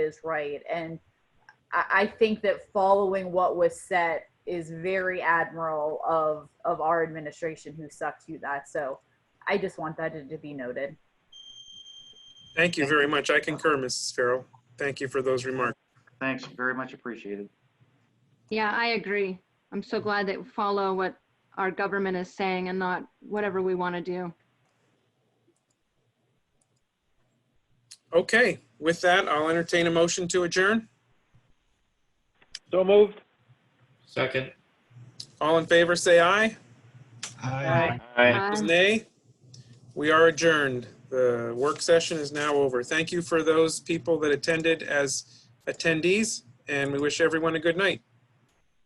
is right. And I, I think that following what was set is very admirable of, of our administration who stuck to that. So I just want that to, to be noted. Thank you very much. I concur, Mrs. Farrell. Thank you for those remarks. Thanks, very much appreciated. Yeah, I agree. I'm so glad that we follow what our government is saying and not whatever we want to do. Okay, with that, I'll entertain a motion to adjourn. So moved. Second. All in favor, say aye. Aye. Opposed, Aye. Nay. We are adjourned. The work session is now over. Thank you for those people that attended as attendees, and we wish everyone a good night.